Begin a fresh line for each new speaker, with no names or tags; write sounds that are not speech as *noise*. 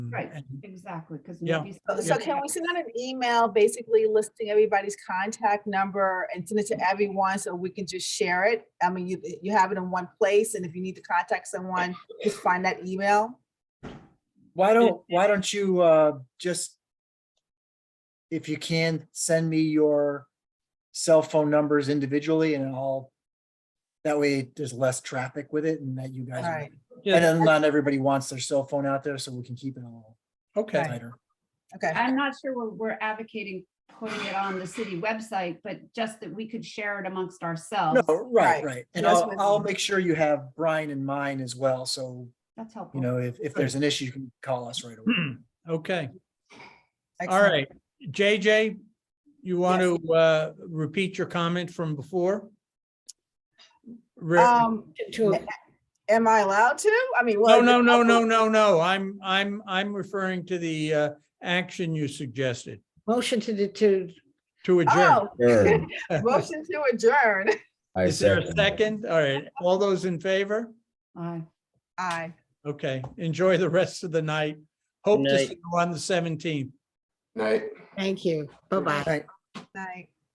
and,
Right.
and-
Exactly, because.
Yeah.
Uh, So can we send out an email basically listing everybody's contact number and send it to everyone so we can just share it? I mean, you, you have it in one place and if you need to contact someone, just find that email.
Why don't, why don't you, uh, just, if you can, send me your cell phone numbers individually and I'll, that way there's less traffic with it and that you guys, are-
Alright.
and
yeah,
then not everybody wants their cell phone out there, so we can keep it all
okay.
tighter.
Okay.
I'm not sure we're, we're advocating putting it on the city website, but just that we could share it amongst ourselves.
No, right,
Right.
right. And
That's
I'll,
what-
I'll make sure you have Brian in mind as well, so,
That's
you
helpful.
know, if, if there's an issue, you can call us right away.
*clears throat* Okay, all
excellent.
right. JJ, you want
Yes.
to, uh, repeat your comment from before? Re-
Um,
to,
am I allowed to? I mean.
No,
well, oh,
no, no, no, no, no. I'm, I'm, I'm referring to the, uh, action you suggested
motion to, the- to,
to adjourn.
Oh,
*laughs*
Sure.
motion to adjourn. *laughs*
I
Is there a
it.
second? All right, all those in favor?
Aye.
Aye.
Okay, enjoy the rest of the night. Hope to
night.
see you on the seventeenth.
thank you. Bye-bye.
Night.